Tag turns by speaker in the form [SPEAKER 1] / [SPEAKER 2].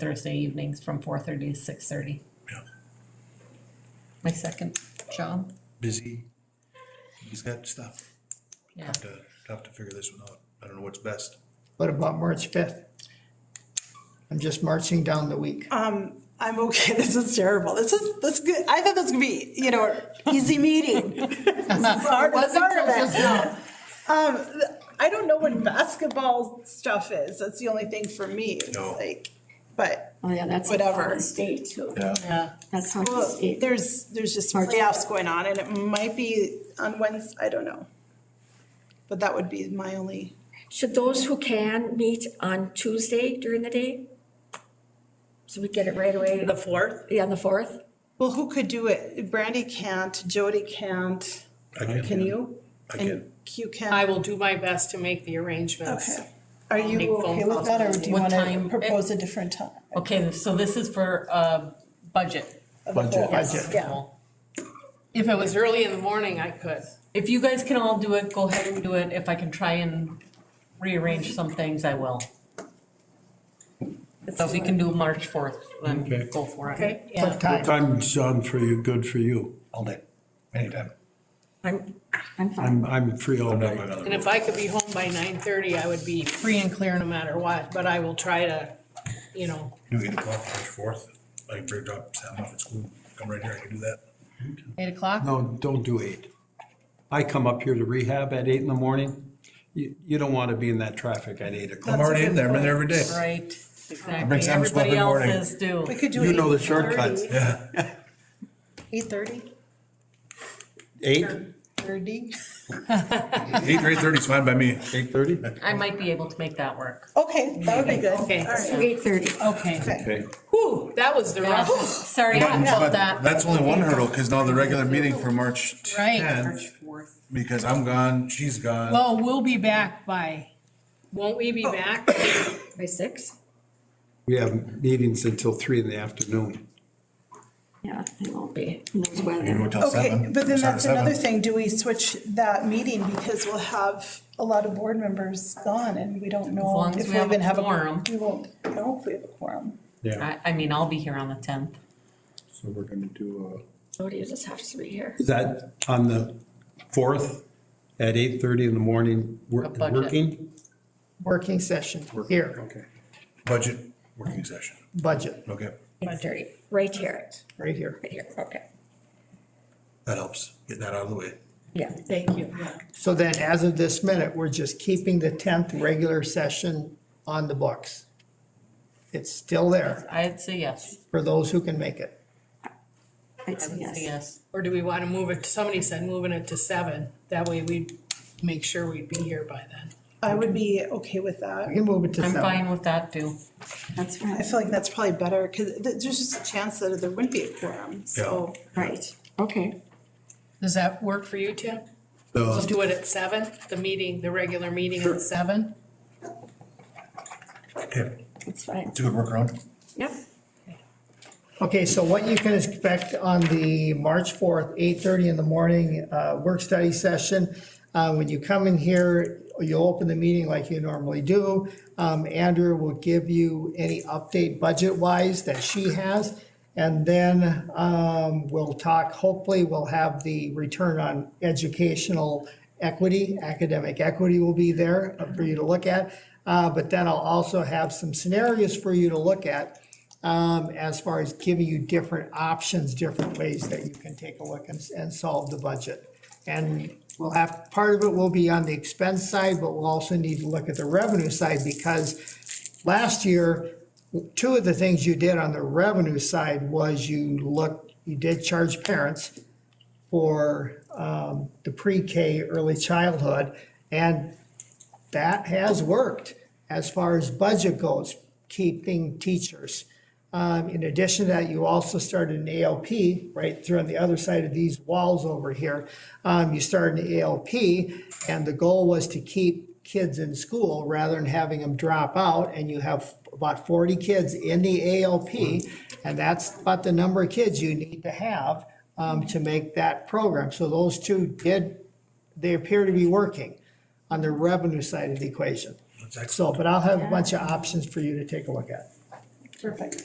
[SPEAKER 1] Thursday evenings from four thirty to six thirty.
[SPEAKER 2] Yeah.
[SPEAKER 1] My second job,
[SPEAKER 2] busy. He's got stuff.
[SPEAKER 1] yeah,
[SPEAKER 2] Have to, have to figure this one out. I don't know what's best.
[SPEAKER 3] What about March fifth? I'm just marching down the week.
[SPEAKER 1] Uh,
[SPEAKER 4] I'm okay. This is terrible. This is this is good. I thought this was gonna be you know easy meeting. This is hard- it's hard event. Um, I don't know when basketball stuff is. That's the only thing for me. It's
[SPEAKER 2] No.
[SPEAKER 4] like, but
[SPEAKER 5] Oh, yeah, that's.
[SPEAKER 4] Whatever.
[SPEAKER 5] Holland State too.
[SPEAKER 1] yeah,
[SPEAKER 5] That's how
[SPEAKER 4] well,
[SPEAKER 5] state.
[SPEAKER 4] there's there's just playoffs going on, and it might be on Wednesday. I don't know. But that would be my only.
[SPEAKER 5] Should those who can meet on Tuesday during the day? So we get it right away,
[SPEAKER 6] The fourth?
[SPEAKER 5] yeah, on the fourth?
[SPEAKER 4] Well, who could do it? Brandy can't. Jody can't.
[SPEAKER 2] I can.
[SPEAKER 4] Can you?
[SPEAKER 2] I
[SPEAKER 4] and
[SPEAKER 2] can.
[SPEAKER 4] You can.
[SPEAKER 6] I will do my best to make the arrangements.
[SPEAKER 4] Okay. Are you
[SPEAKER 6] make phone
[SPEAKER 4] okay with
[SPEAKER 6] calls.
[SPEAKER 4] that, or do you
[SPEAKER 1] What
[SPEAKER 4] want to
[SPEAKER 1] time?
[SPEAKER 4] propose a different time?
[SPEAKER 1] okay, so this is for uh budget.
[SPEAKER 3] Budget.
[SPEAKER 4] Yeah.
[SPEAKER 6] If it was early in the morning, I could.
[SPEAKER 1] If you guys can all do it, go ahead and do it, if I can try and rearrange some things, I will. So if we can do March fourth,
[SPEAKER 7] Okay.
[SPEAKER 1] then go for it.
[SPEAKER 6] Okay.
[SPEAKER 1] Yeah,
[SPEAKER 7] What time's on for you, good for you?
[SPEAKER 2] All day, anytime.
[SPEAKER 5] I'm, I'm fine.
[SPEAKER 7] I'm, I'm free all
[SPEAKER 2] I'm not
[SPEAKER 7] night.
[SPEAKER 2] going on
[SPEAKER 6] And
[SPEAKER 2] the road.
[SPEAKER 6] if I could be home by nine thirty, I would be free and clear no matter what, but I will try to, you know,
[SPEAKER 2] You get a call March fourth, I can bring drop Sam off at school, come right here, I can do that.
[SPEAKER 1] eight o'clock?
[SPEAKER 7] No, don't do eight. I come up here to rehab at eight in the morning. You, you don't want to be in that traffic at eight o'clock.
[SPEAKER 2] I'm already in there, I'm in there every day.
[SPEAKER 1] Right,
[SPEAKER 2] bring
[SPEAKER 1] exactly,
[SPEAKER 2] Sam's Club
[SPEAKER 1] everybody
[SPEAKER 2] in the
[SPEAKER 1] else
[SPEAKER 2] morning.
[SPEAKER 1] is due.
[SPEAKER 4] We could do it.
[SPEAKER 7] You know the shortcuts.
[SPEAKER 2] Yeah,
[SPEAKER 4] Eight thirty?
[SPEAKER 7] Eight,
[SPEAKER 4] Thirty.
[SPEAKER 2] eight, eight thirty's fine by me.
[SPEAKER 7] eight thirty?
[SPEAKER 1] I might be able to make that work.
[SPEAKER 4] Okay, that would be good.
[SPEAKER 6] Okay.
[SPEAKER 4] All right.
[SPEAKER 5] Eight thirty.
[SPEAKER 1] Okay.
[SPEAKER 7] Okay.
[SPEAKER 6] whew, that was the rough.
[SPEAKER 1] Sorry
[SPEAKER 2] But-
[SPEAKER 1] about
[SPEAKER 2] but
[SPEAKER 1] that.
[SPEAKER 2] That's only one hurdle, cause now the regular meeting for March
[SPEAKER 8] Right.
[SPEAKER 2] tenth, because I'm gone, she's gone.
[SPEAKER 8] Well, we'll be back by,
[SPEAKER 6] Won't we be back?
[SPEAKER 5] By six?
[SPEAKER 7] We have meetings until three in the afternoon.
[SPEAKER 5] Yeah, it won't be. And there's
[SPEAKER 2] You
[SPEAKER 5] weather.
[SPEAKER 2] go till
[SPEAKER 4] Okay,
[SPEAKER 2] seven,
[SPEAKER 4] but
[SPEAKER 2] from
[SPEAKER 4] then
[SPEAKER 2] seven to
[SPEAKER 4] that's another
[SPEAKER 2] seven.
[SPEAKER 4] thing. Do we switch that meeting because we'll have a lot of board members gone and we don't know
[SPEAKER 1] long as
[SPEAKER 4] if
[SPEAKER 1] we
[SPEAKER 4] we
[SPEAKER 1] have
[SPEAKER 4] even
[SPEAKER 1] a
[SPEAKER 4] have a.
[SPEAKER 1] quorum.
[SPEAKER 4] We won't know if we have a quorum.
[SPEAKER 7] Yeah.
[SPEAKER 1] I, I mean, I'll be here on the tenth.
[SPEAKER 7] So we're gonna do, uh,
[SPEAKER 5] So you just have to be here.
[SPEAKER 7] is that on the fourth at eight thirty in the morning, wor-
[SPEAKER 1] A budget.
[SPEAKER 7] working?
[SPEAKER 3] Working session here,
[SPEAKER 7] Okay.
[SPEAKER 2] Budget working session,
[SPEAKER 3] budget,
[SPEAKER 2] okay,
[SPEAKER 5] Eight thirty, right here,
[SPEAKER 3] right here.
[SPEAKER 5] right here, okay.
[SPEAKER 2] that helps, get that out of the way.
[SPEAKER 5] Yeah. Thank you.
[SPEAKER 3] So then, as of this minute, we're just keeping the tenth regular session on the books. It's still there
[SPEAKER 1] I'd say yes.
[SPEAKER 3] for those who can make it.
[SPEAKER 5] I'd
[SPEAKER 1] I
[SPEAKER 5] say
[SPEAKER 1] would say
[SPEAKER 5] yes.
[SPEAKER 1] yes.
[SPEAKER 6] Or do we want to move it, somebody said moving it to seven, that way we'd make sure we'd be here by then.
[SPEAKER 4] I would be okay with that.
[SPEAKER 3] We can move it to
[SPEAKER 1] I'm
[SPEAKER 3] seven.
[SPEAKER 1] fine with that too.
[SPEAKER 5] That's
[SPEAKER 4] I
[SPEAKER 5] fine.
[SPEAKER 4] feel like that's probably better because there's just a chance that there wouldn't be a quorum, so.
[SPEAKER 5] Right, okay.
[SPEAKER 8] does that work?
[SPEAKER 6] Work for you, Tim?
[SPEAKER 7] So-
[SPEAKER 6] We'll do it at seven, the meeting, the regular meeting at seven.
[SPEAKER 2] Okay,
[SPEAKER 5] That's fine.
[SPEAKER 2] it's a good workaround.
[SPEAKER 5] Yep.
[SPEAKER 3] Okay, so what you can expect on the March 4th, 8:30 in the morning, uh, work-study session. Uh, When you come in here, you'll open the meeting like you normally do. Um, Andrew will give you any update budget-wise that she has. And then um, we'll talk, hopefully, we'll have the return on educational equity, academic equity will be there for you to look at. Uh, But then I'll also have some scenarios for you to look at um, as far as giving you different options, different ways that you can take a look and, and solve the budget. And we'll have, part of it will be on the expense side, but we'll also need to look at the revenue side because last year, two of the things you did on the revenue side was you looked, you did charge parents for, um, the pre-K early childhood. And that has worked as far as budget goes, keeping teachers. Um, in addition to that, you also started an ALP right through on the other side of these walls over here. Um, you started an ALP, and the goal was to keep kids in school rather than having them drop out. And you have about 40 kids in the ALP, and that's about the number of kids you need to have um, to make that program. So those two did, they appear to be working on the revenue side of the equation. So, but I'll have a bunch of options for you to take a look at.
[SPEAKER 4] Perfect.